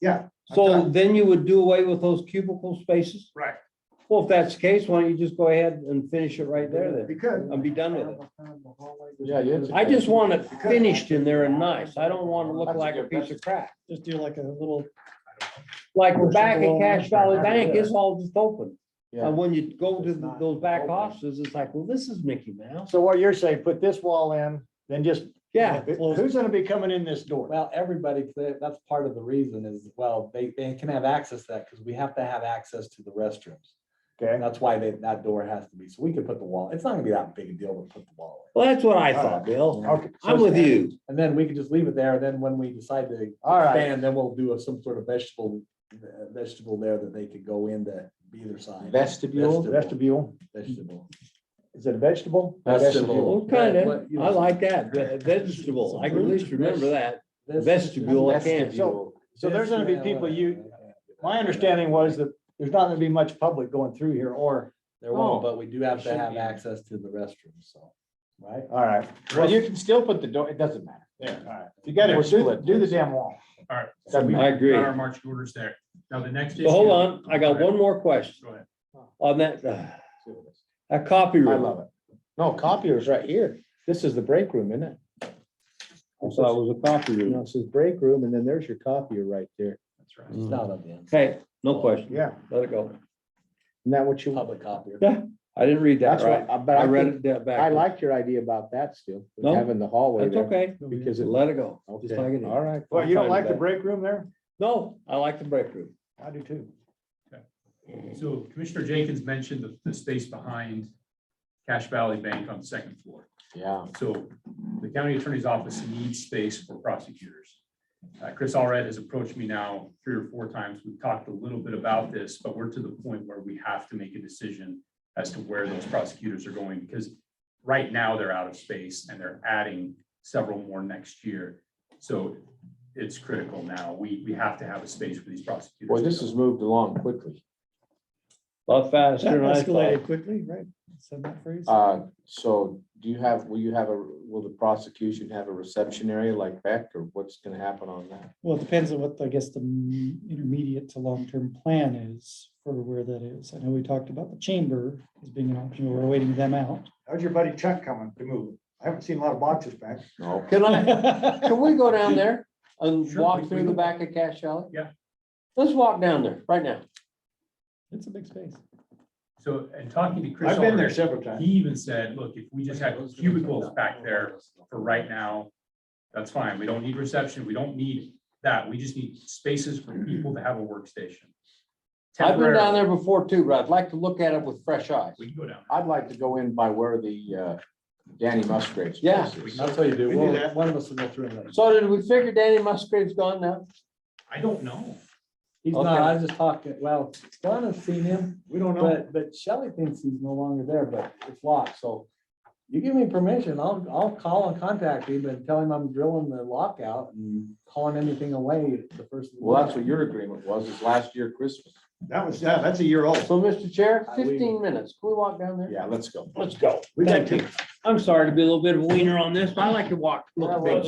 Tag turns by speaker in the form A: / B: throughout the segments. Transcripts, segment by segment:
A: Yeah.
B: So then you would do away with those cubicle spaces?
A: Right.
B: Well, if that's the case, why don't you just go ahead and finish it right there then?
A: We could.
B: And be done with it.
C: Yeah, you have to-
B: I just want it finished in there and nice. I don't want to look like a piece of crap.
D: Just do like a little,
B: Like we're back at Cash Valley Bank, it's all just open.
C: Yeah.
B: And when you go to th- those back offices, it's like, well, this is Mickey Mouse.
C: So what you're saying, put this wall in, then just.
B: Yeah,
C: Who- Who's gonna be coming in this door?
E: Well, everybody, that's part of the reason is, well, they, they can have access to that because we have to have access to the restrooms.
C: Okay,
E: That's why they, that door has to be, so we could put the wall, it's not gonna be that big a deal to put the wall in.
B: well, that's what I thought, Bill.
C: okay. so-
B: I'm with you.
E: And then we could just leave it there, and then when we decide to
C: All right.
E: expand, then we'll do a- some sort of vegetable, uh, vegetable there that they could go into either side.
C: Vestibule, vestibule,
E: Vegetable.
C: is it a vegetable?
E: Vestibule.
B: Well, kind of. I like that. Ve- Vegetable. I can at least remember that. Vestibule, I can't.
C: Vestibule. So there's gonna be people you, my understanding was that there's not gonna be much public going through here or,
E: There won't, but we do have to
C: Should
E: have
C: be.
E: access to the restroom, so, right?
C: all right.
F: Well, you can still put the door, it doesn't matter.
C: All right.
F: You gotta
C: Well, do, the-
F: split.
C: do the damn wall.
A: All right.
C: That'd be-
B: I agree.
A: Got our marching orders there. Now, the next.
B: So hold
A: issue-
B: on, I got one more question
A: Go ahead.
B: on that, uh, that copy
C: I
B: room.
C: love it. No, copier's right here. This is the break room, isn't it?
B: I thought it was a copy
C: No,
B: room.
C: it says break room and then there's your copier right there.
A: That's right.
B: Hmm.
E: It's not on the end.
B: Okay, Mm. no question.
C: Yeah.
B: Let it go.
C: Isn't that what you?
E: Public copier.
B: I didn't read that
C: That's
B: right.
C: right. But
B: I
C: I
B: read
C: think,
B: it that back.
C: I liked your idea about that still, with
B: No,
C: having the hallway
B: That's
C: there.
B: okay.
C: Because it.
B: Let it go.
C: Okay,
B: Just like it is.
C: all right.
B: Well, you don't like the
C: break room there?
B: No, I like the break room.
C: I do too.
A: So Commissioner Jenkins mentioned the, the space behind Cash Valley Bank on the second floor.
F: Yeah.
A: So the county attorney's office needs space for prosecutors. Uh, Chris Allred has approached me now three or four times. We've talked a little bit about this, but we're to the point where we have to make a decision as to where those prosecutors are going, because right now they're out of space and they're adding several more next year. So it's critical now. We, we have to have a space for these prosecutors.
F: Boy, this has moved along quickly.
B: A lot faster
D: that
B: than I thought.
D: escalated quickly, right? Said that phrase.
F: Uh, so do you have, will you have a, will the prosecution have a reception area like Beck or what's gonna happen on that?
D: Well, it depends on what, I guess, the m- intermediate to long-term plan is for where that is. I know we talked about the chamber as being an option. We're waiting them out.
G: How's your buddy Chuck coming to move? I haven't seen a lot of boxes back.
F: No.
B: Can I,
D: Well,
B: can we go down there and
A: Sure,
B: walk
A: we-
B: through the back of Cash Alley?
A: Yeah.
B: Let's walk down there right now.
D: It's a big space.
A: So, and talking to Chris.
G: I've been there
A: Allred,
G: several times.
A: He even said, look, if we just have cubicles back there for right now, that's fine. We don't need reception. We don't need that. We just need spaces for people to have a workstation.
B: I've been down
A: Temporarily.
B: there before too, but I'd like to look at it with fresh eyes.
A: We can go down.
F: I'd like to go in by where the, uh, Danny Musgrave's. place
B: Yeah.
F: is.
E: That's how you do.
G: We
E: it.
G: do
E: Well,
G: that.
E: one of us will go through and.
B: So did we figure Danny Musgrave's gone now?
A: I don't know.
E: He's
B: Okay.
E: not, I was just talking, well, Donna's seen him,
G: We don't know.
E: but, but Shelley thinks he's no longer there, but it's locked, so. You give me permission, I'll, I'll call and contact him and tell him I'm drilling the lockout and calling anything away the first. of the
F: Well, that's
E: month.
F: what your agreement was, is last year Christmas.
G: That was, yeah, that's a year old.
B: So, Mr. Chair,
E: I- we-
B: fifteen minutes. Can we walk down there?
F: Yeah, let's go.
B: Let's go.
G: We got
B: Thank you. I'm sorry to be a little bit of a wiener on this, but I like to walk, look at things.
C: We'll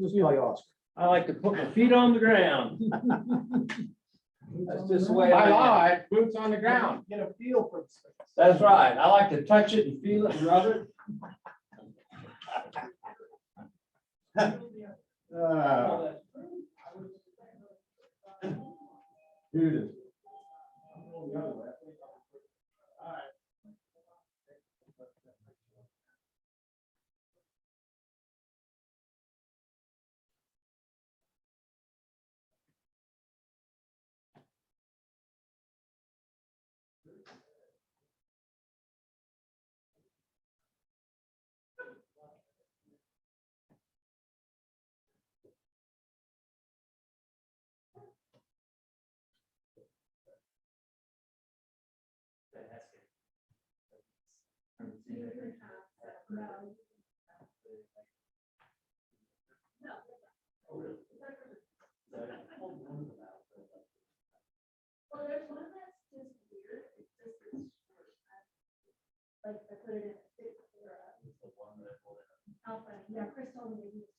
C: just call you Oscar.
B: I like to put my feet on the ground. That's just the way I am.
F: life, boots on the ground.
G: Get a feel for.
B: That's right. I like to touch it and feel it and rub it.
G: Uh, dude.
H: Well, there's one that's just weird, it's just. it's short. Like, I put it in. a big, uh, How funny, yeah, Chris told me.